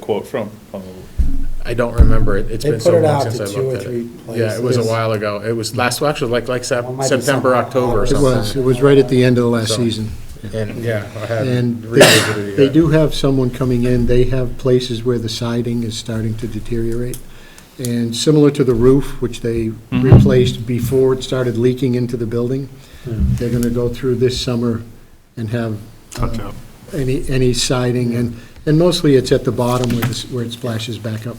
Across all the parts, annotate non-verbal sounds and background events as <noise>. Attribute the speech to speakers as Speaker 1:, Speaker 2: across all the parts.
Speaker 1: quote from, probably.
Speaker 2: I don't remember it. It's
Speaker 3: They
Speaker 2: been
Speaker 3: put
Speaker 2: so
Speaker 3: it
Speaker 2: long
Speaker 3: out to
Speaker 2: since I looked at it.
Speaker 3: two or three
Speaker 2: Yeah, it was a
Speaker 3: places.
Speaker 2: while ago. It was last, well, actually, like, like Sep-
Speaker 3: Well, it might be
Speaker 2: September,
Speaker 3: something.
Speaker 2: October or
Speaker 4: It
Speaker 2: something.
Speaker 4: was, it was right at the end of last
Speaker 2: So-
Speaker 4: season.
Speaker 2: And, yeah, I had
Speaker 4: And
Speaker 2: revisited
Speaker 4: they
Speaker 2: it.
Speaker 4: they
Speaker 2: yeah.
Speaker 4: do have someone coming in, they have places where the siding is starting to deteriorate. And similar to the roof, which they replaced before it started leaking into the building, they're going to go through this summer and have uh, any, any siding, and, and mostly it's at the bottom where this- where it splashes back up.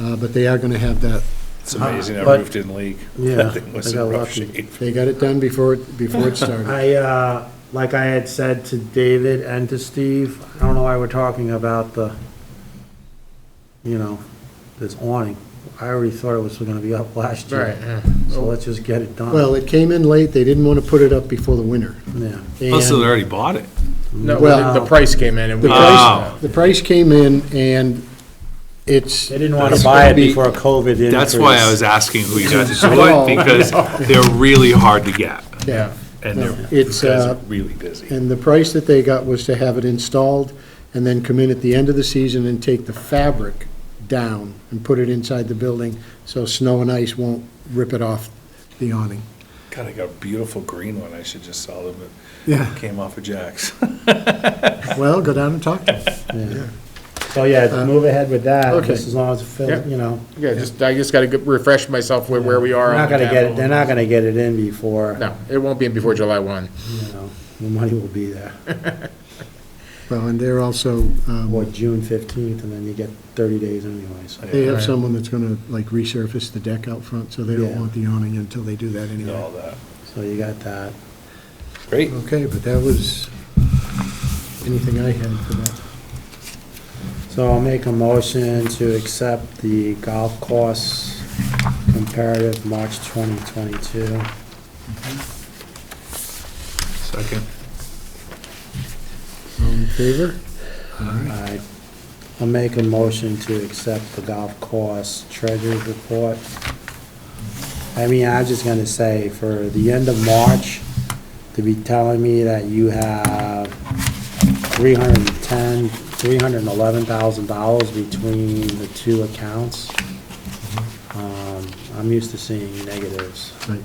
Speaker 4: Uh, But they are going to have that,
Speaker 1: It's amazing that
Speaker 3: But-
Speaker 1: roof didn't leak. <laughs>
Speaker 3: Yeah,
Speaker 1: That thing was
Speaker 3: I
Speaker 1: in
Speaker 3: got
Speaker 1: rough
Speaker 3: lucky.
Speaker 1: shape.
Speaker 4: they got it done before, it before it
Speaker 3: <laughs>
Speaker 4: started.
Speaker 3: I, uh, like I had said to David and to Steve, I don't know why we're talking about the, you know, this awning. I already thought it was gonna be up <laughs> last year.
Speaker 2: Right, yeah.
Speaker 3: So let's just get it done.
Speaker 4: Well, it came in late, they didn't want to put it up before the winter.
Speaker 3: Yeah.
Speaker 1: Plus, they
Speaker 4: And-
Speaker 1: already bought it.
Speaker 2: No,
Speaker 4: Well-
Speaker 2: the the price came in and we.
Speaker 4: The price, the price came in and it's.
Speaker 3: They didn't wanna
Speaker 4: it's
Speaker 3: buy
Speaker 4: gonna
Speaker 3: it
Speaker 4: be-
Speaker 3: before COVID increase.
Speaker 5: That's why I was asking who you
Speaker 4: <laughs>
Speaker 5: got to do
Speaker 4: I know.
Speaker 5: it, because they're really hard to get,
Speaker 4: Yeah,
Speaker 5: and they're
Speaker 4: it's,
Speaker 1: Guys are
Speaker 4: uh,
Speaker 1: really busy.
Speaker 4: and the price that they got was to have it installed and then come in at the end of the season and take the fabric down and put it inside the building so snow and ice won't rip it off the awning.
Speaker 1: God, I got a beautiful green one. I should just sell them.
Speaker 4: Yeah.
Speaker 1: It came off of Jack's. <laughs>
Speaker 4: Well, go down and talk to them.
Speaker 3: So, yeah, move ahead with that,
Speaker 4: Okay.
Speaker 3: just as long as it
Speaker 2: Yeah.
Speaker 3: fills, you know.
Speaker 2: Yeah, just, I just gotta go- refresh myself where, where we are.
Speaker 3: They're
Speaker 2: on
Speaker 3: not
Speaker 2: the
Speaker 3: gonna get,
Speaker 2: capital.
Speaker 3: they're not gonna get it in before,
Speaker 2: No, it won't be in before July one.
Speaker 3: you know, the money will be
Speaker 2: <laughs>
Speaker 3: there.
Speaker 4: Well, and they're also,
Speaker 3: Or
Speaker 4: um,
Speaker 3: June fifteenth, and then you get thirty days anyways.
Speaker 4: they have
Speaker 2: Right.
Speaker 4: someone that's gonna like resurface the deck out front, so they don't
Speaker 3: Yeah.
Speaker 4: want the awning until they do that
Speaker 1: Did all
Speaker 4: anyway.
Speaker 1: that.
Speaker 3: So you got that.
Speaker 1: Great.
Speaker 4: Okay, but that was anything I had for that.
Speaker 3: So I'll make a motion to accept the golf course comparative March 2022.
Speaker 5: second.
Speaker 4: All in favor?
Speaker 3: I- I'll make a motion to accept the golf course treasurer's report. I mean, I'm just gonna say for the end of March, to be telling me that you have 310, $311,000 between the two accounts. Um, I'm used to seeing negatives.
Speaker 4: Right.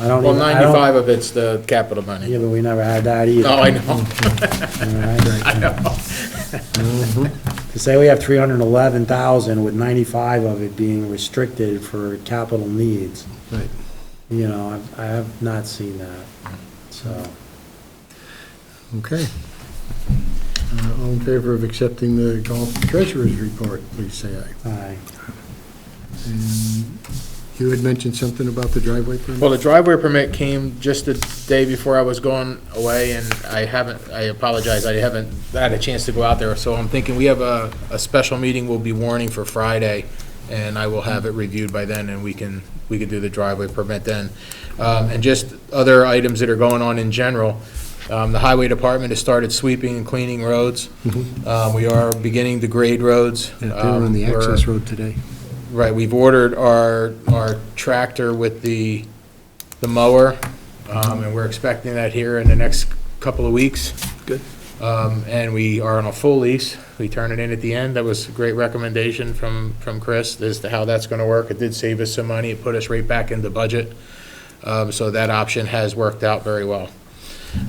Speaker 3: I don't
Speaker 2: Well,
Speaker 3: even, I don't-
Speaker 2: ninety-five of it's the capital money.
Speaker 3: Yeah, but we never had that either.
Speaker 2: Oh, I
Speaker 3: <laughs>
Speaker 2: know. <laughs>
Speaker 3: I know.
Speaker 4: Mm-hmm.
Speaker 3: To say we have three hundred and eleven thousand with ninety-five of it being restricted for capital needs,
Speaker 4: Right.
Speaker 3: you know, I've- I have not seen that, so.
Speaker 4: Okay. Uh, All in favor of accepting the golf treasurer's report, please say aye.
Speaker 3: I
Speaker 4: And You had mentioned something about the driveway permit?
Speaker 2: Well, the driveway permit came just the day before I was going away, and I haven't, I apologize, I haven't had a chance to go out there, so I'm thinking we have a, a special meeting we'll be warning for Friday, and I will have it reviewed by then, and we can, we can do the driveway permit then. Um, and just other items that are going on in general, um, the highway department has started sweeping and cleaning roads. Uh, we are beginning to grade roads.
Speaker 4: Mm-hmm. Yeah, They were on the
Speaker 2: Um, we're-
Speaker 4: access road today.
Speaker 2: Right, we've ordered our, our tractor with the, the mower, um, and we're expecting that here in the next couple of weeks.
Speaker 4: Good.
Speaker 2: Um, and we are on a full lease. We turn it in at the end. That was a great recommendation from, from Chris as to how that's gonna work. It did save us some money. It put us right back into budget. Um, so that option has worked out very well.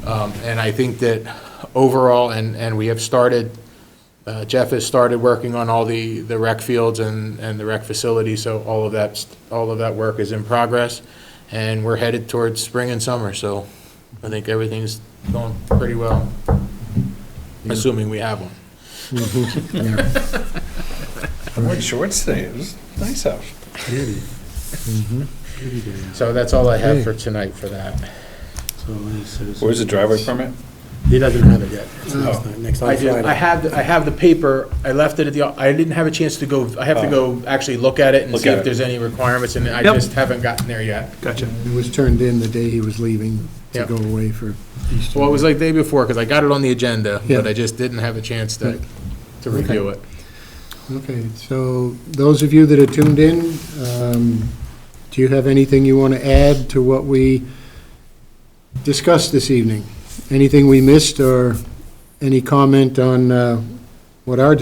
Speaker 2: Um, and I think that overall, and, and we have started uh, Jeff has started working on all the, the rec fields and, and the rec facility, so all of that, all of that work is in progress, and we're headed towards spring and summer, so I think everything's going pretty well, assuming we have one.
Speaker 4: Mm-hmm. <laughs> Yeah.
Speaker 1: I'm wearing shorts today. It was nice out.
Speaker 2: So that's all I have for tonight for that.
Speaker 3: so any citizen-
Speaker 1: Where's the driveway permit?
Speaker 3: He doesn't have it yet. It's next-
Speaker 1: Oh.
Speaker 3: Next
Speaker 2: I
Speaker 3: on
Speaker 2: do, I
Speaker 3: Friday.
Speaker 2: have, I have the paper, I left it at the, I didn't have a chance to go, I have to go actually look at it and
Speaker 1: Oh. Look
Speaker 2: see
Speaker 1: at
Speaker 2: if
Speaker 1: it.
Speaker 2: there's any requirements, and I
Speaker 5: Yep.
Speaker 2: just haven't gotten there yet.
Speaker 5: Gotcha.
Speaker 4: It was turned in the day he was leaving to
Speaker 2: Yeah.
Speaker 4: go away for Easter.
Speaker 2: Well, it was like day before, because I got it on the agenda,
Speaker 4: Yeah.
Speaker 2: but I just didn't have a chance to,
Speaker 4: Right.
Speaker 2: to review it.
Speaker 4: Okay, so those of you that are tuned in, um, do you have anything you want to add to what we discussed this evening? Anything we missed or any comment on uh, what our